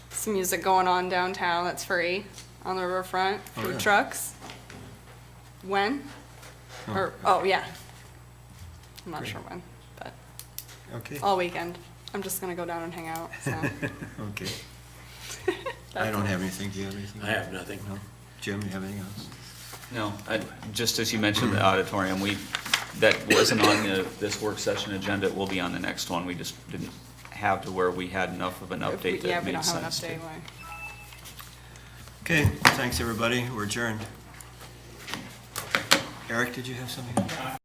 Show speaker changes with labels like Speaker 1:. Speaker 1: some music going on downtown that's free on the riverfront,
Speaker 2: Oh,
Speaker 1: food
Speaker 2: yeah.
Speaker 1: trucks. When? Or, oh, yeah. I'm not
Speaker 2: Great.
Speaker 1: sure when, but
Speaker 2: Okay,
Speaker 1: all weekend. I'm just gonna go down and hang out, so.
Speaker 2: okay. I don't have anything, do you have anything?
Speaker 3: I have nothing.
Speaker 2: No? Jim, you have anything else?
Speaker 4: No, I- just as you mentioned the auditorium, we, that wasn't on the, this work session agenda, it will be on the next one. We just didn't have to where we had enough of an
Speaker 1: If we-
Speaker 4: update
Speaker 1: Yeah,
Speaker 4: that
Speaker 1: if we
Speaker 4: made
Speaker 1: don't have an
Speaker 4: sense. to-
Speaker 1: update, why?
Speaker 2: Okay, thanks, everybody, we're adjourned. Eric, did you have something?